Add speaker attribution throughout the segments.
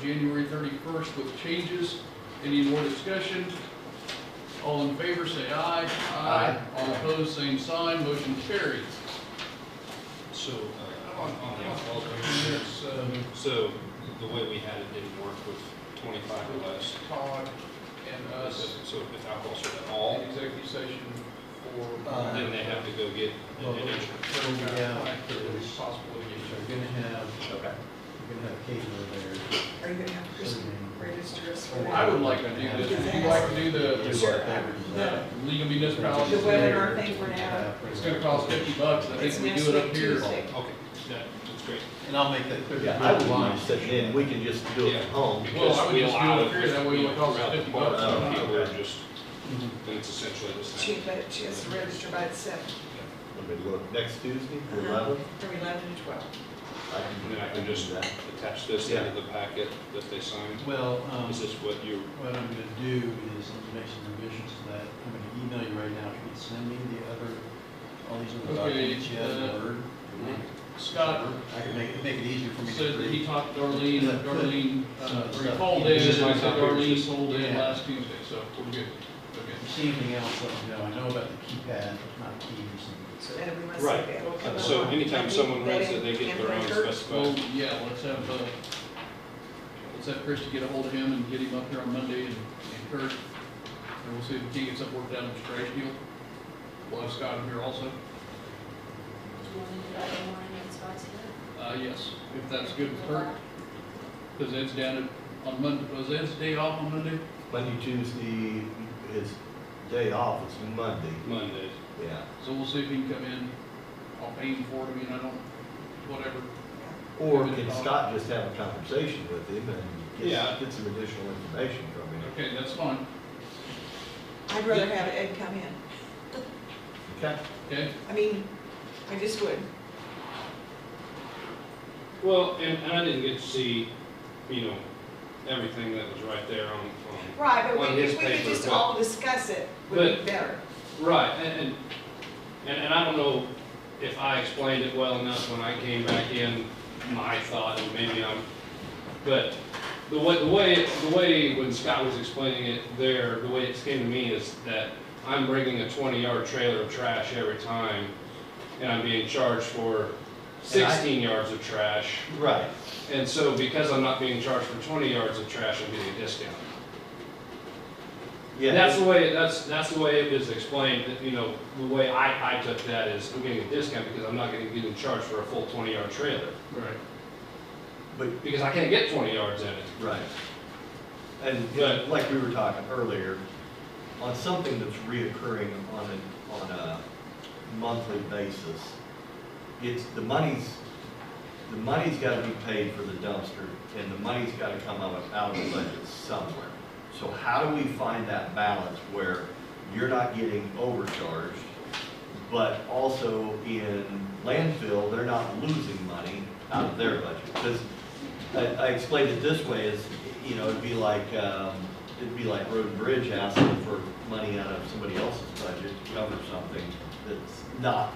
Speaker 1: January thirty-first with changes. Any more discussion? All in favor, say aye. All opposed, same sign, motion carries.
Speaker 2: So, uh, on, on the alcohol commission,
Speaker 1: Yes, uh,
Speaker 2: so the way we had it didn't work with twenty-five or less.
Speaker 1: Todd and us,
Speaker 2: So if alcohol's at
Speaker 1: all
Speaker 2: all,
Speaker 1: executive session for.
Speaker 3: Uh,
Speaker 2: then they have to go get
Speaker 3: Well,
Speaker 2: an insurance.
Speaker 3: So we have,
Speaker 1: Possible
Speaker 3: so
Speaker 1: litigation.
Speaker 3: we're gonna have, we're gonna have Kate over
Speaker 4: Are you gonna have Chris register us for
Speaker 1: I
Speaker 4: that?
Speaker 1: would like to do this, would you like to do
Speaker 3: there.
Speaker 1: the,
Speaker 4: Sure.
Speaker 1: the legal
Speaker 4: The
Speaker 1: municipalities?
Speaker 4: webinar thing for now.
Speaker 1: It's gonna cost fifty bucks, I
Speaker 4: It's
Speaker 1: think we
Speaker 4: next
Speaker 1: do it
Speaker 4: week,
Speaker 1: up here.
Speaker 4: Tuesday.
Speaker 2: Okay, that, that's great.
Speaker 3: And I'll make that clear.
Speaker 5: Yeah, I would mind sitting in, we can just do it
Speaker 2: Yeah.
Speaker 5: at home.
Speaker 1: Well, I would
Speaker 2: Because we
Speaker 1: just do
Speaker 2: allow
Speaker 1: it up here, that way it'll cost
Speaker 2: throughout the
Speaker 1: 50
Speaker 2: park,
Speaker 1: bucks.
Speaker 2: so
Speaker 5: Oh,
Speaker 2: People are
Speaker 5: okay.
Speaker 2: just,
Speaker 3: Mm-hmm.
Speaker 2: then it's essentially the
Speaker 4: She,
Speaker 2: same.
Speaker 4: but she has to register by the seventh. Uh-huh.
Speaker 5: Let me look, next Tuesday, the eleventh,
Speaker 4: From eleven to twelve.
Speaker 5: I
Speaker 2: And
Speaker 5: can,
Speaker 2: then I can just
Speaker 5: do that.
Speaker 2: attach this
Speaker 5: Yeah.
Speaker 2: into the packet that they signed.
Speaker 3: Well, um,
Speaker 2: Is this what you,
Speaker 3: what I'm gonna do is, I'm gonna make some revisions to that, I'm gonna email you right now, if you can send me the other, all these
Speaker 1: Okay,
Speaker 3: other documents you have
Speaker 1: uh,
Speaker 3: in Word.
Speaker 1: Scott
Speaker 3: I can make, make it easier for me to.
Speaker 1: said that he
Speaker 3: read.
Speaker 1: talked to Darlene, and Darlene, uh, or he called in,
Speaker 2: This
Speaker 1: and
Speaker 2: is my
Speaker 1: said
Speaker 2: copy.
Speaker 1: Darlene sold in
Speaker 3: Yeah.
Speaker 1: last Tuesday, so we're good. Okay.
Speaker 3: If you see anything else, let me know, I know about the keypad, not keys
Speaker 4: So then we must see
Speaker 2: Right.
Speaker 4: that it'll come up.
Speaker 2: so anytime
Speaker 4: on-
Speaker 2: someone runs it, they get
Speaker 4: in
Speaker 2: their own
Speaker 4: record.
Speaker 1: Well,
Speaker 2: specified.
Speaker 1: yeah, let's have, uh, let's have Chris to get a hold of him and get him up here on Monday and and Kurt. And we'll see if we can get something worked out in the straight deal. We'll have Scott in here also.
Speaker 6: Do you want to do that in the morning and spice it
Speaker 1: Uh, yes, if that's
Speaker 6: up?
Speaker 1: good with Kurt, because Ed's down at- on Monday, was Ed's day off on Monday?
Speaker 5: Monday, Tuesday, his day off is Monday,
Speaker 2: Monday.
Speaker 5: yeah.
Speaker 1: So we'll see if he can come in. I'll pay him for it, I mean, I don't, whatever.
Speaker 5: Or can Scott just have a conversation with him and
Speaker 2: Yeah.
Speaker 5: get, get some additional information from him?
Speaker 1: Okay, that's fine,
Speaker 4: I'd rather have Ed come in.
Speaker 5: Okay,
Speaker 1: okay?
Speaker 4: I mean, I just would.
Speaker 2: Well, and, and I didn't get to see, you know, everything that was right there on, on.
Speaker 4: Right, but
Speaker 2: on
Speaker 4: we-
Speaker 2: his
Speaker 4: if we could
Speaker 2: paper,
Speaker 4: just
Speaker 2: but-
Speaker 4: all discuss it, would be better.
Speaker 2: Right, and, and, and, and I don't know if I explained it well enough when I came back in, my thought, and maybe I'm, but the way, the way, the way when Scott was explaining it there, the way it came to me is that I'm bringing a twenty yard trailer of trash every time, and I'm being charged for
Speaker 5: And I-
Speaker 2: sixteen yards of trash.
Speaker 5: right,
Speaker 2: And so because I'm not being charged for twenty yards of trash, I'm getting a discount.
Speaker 5: yeah.
Speaker 2: That's the way, that's, that's the way it was explained, that, you know, the way I, I took that is, I'm getting a discount because I'm not gonna get in charge for a full twenty yard trailer,
Speaker 1: Right.
Speaker 5: But
Speaker 2: because I can't get twenty yards in it.
Speaker 5: Right. And
Speaker 2: But-
Speaker 5: like we were talking earlier, on something that's reoccurring on a, on a monthly basis, it's, the money's, the money's gotta be paid for the dumpster, and the money's gotta come out of, out of the budget somewhere. So how do we find that balance where you're not getting overcharged, but also in landfill, they're not losing money out of their budget? Because I, I explained it this way, is, you know, it'd be like, um, it'd be like Road and Bridge asking for money out of somebody else's budget to cover something that's not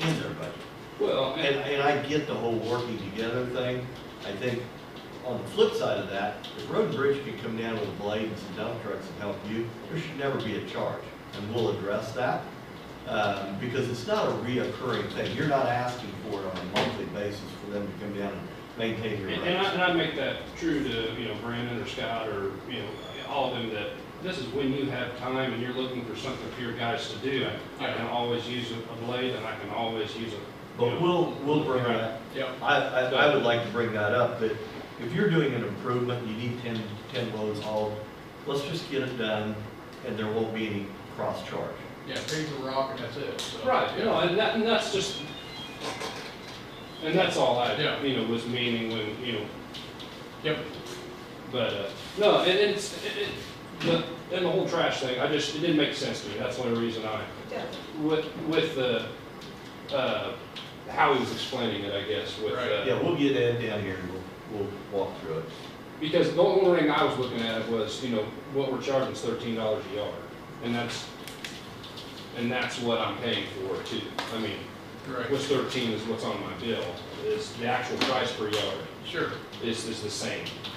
Speaker 5: in their budget.
Speaker 2: Well,
Speaker 5: And, and I get the whole working together thing, I think, on the flip side of that, if Road and Bridge can come down with a blade and some dump trucks and help you, there should never be a charge, and we'll address that. Um, because it's not a reoccurring thing, you're not asking for it on a monthly basis for them to come down and maintain your.
Speaker 2: And,
Speaker 5: roads.
Speaker 2: and I, and I make that true to, you know, Brandon or Scott or, you know, all of them that this is when you have time and you're looking for something for your guys to do. I can always use a a blade and I can always use a. you
Speaker 5: But
Speaker 2: know,
Speaker 5: we'll, we'll bring that,
Speaker 1: Yep.
Speaker 5: I, I, I would like to bring that up, that if you're doing an improvement, you need ten, ten loads hauled, let's just get it done, and there won't be any cross-charge.
Speaker 1: Yeah, pay for rock and that's it, so.
Speaker 2: Right, you know, and that, and that's just, and that's all I,
Speaker 1: Yeah.
Speaker 2: you know, was meaning when, you know,
Speaker 1: Yep,
Speaker 2: but, uh, no, and it's, it, it, the- and the whole trash thing, I just, it didn't make sense to me, that's the only reason I,
Speaker 4: Yeah.
Speaker 2: with, with the, uh, how he was explaining it, I guess, with,
Speaker 1: Right.
Speaker 2: uh,
Speaker 5: Yeah, we'll get Ed down here and we'll, we'll walk through it.
Speaker 2: because the only thing I was looking at was, you know, what we're charging is thirteen dollars a yard, and that's, and that's what I'm paying for too, I mean,
Speaker 1: right,
Speaker 2: which thirteen is what's on my bill, is the actual price per yard.
Speaker 1: sure.
Speaker 2: is, is the same.